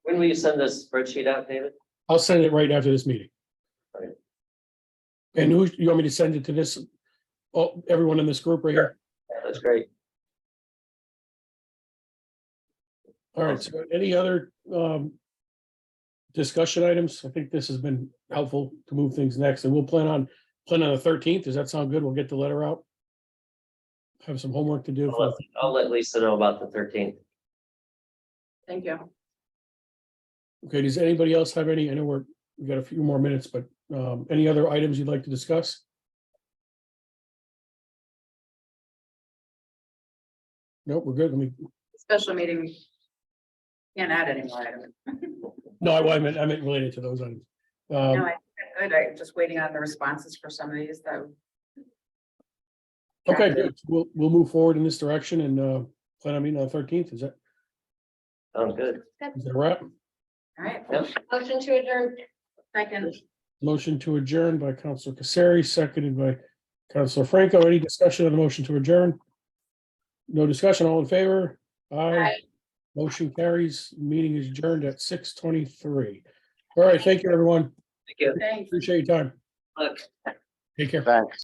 When will you send this spreadsheet out, David? I'll send it right after this meeting. Alright. And who, you want me to send it to this, oh, everyone in this group right here? Yeah, That's great. All right, so any other um discussion items? I think this has been helpful to move things next, and we'll plan on, plan on the thirteenth. Does that sound good? We'll get the letter out. Have some homework to do. I'll for- let- I'll let Lisa know about the thirteenth. Thank you. Okay, does anybody else have any, I know we're, we've got a few more minutes, but um, any other items you'd like to discuss? Nope, we're good. Let me, Special meeting. Can't add any more items. no, I I meant, I meant related to those items. No, Um, I, think I'm good. I'm just waiting on the responses for some of these, though. okay, good. We'll, we'll move forward in this direction and uh, plan on meeting on thirteenth. Is that, Sounds good. is that a wrap? All right, Yep. Motion to adjourn. second, Motion to adjourn by Counselor Casari, seconded by Counselor Franco. Any discussion on the motion to adjourn? No discussion, all in favor? Aye. Aye. Motion carries, meeting is adjourned at six twenty-three. All right, thank you, everyone. Thank you. thanks. Appreciate your time. Look. Take care. Thanks.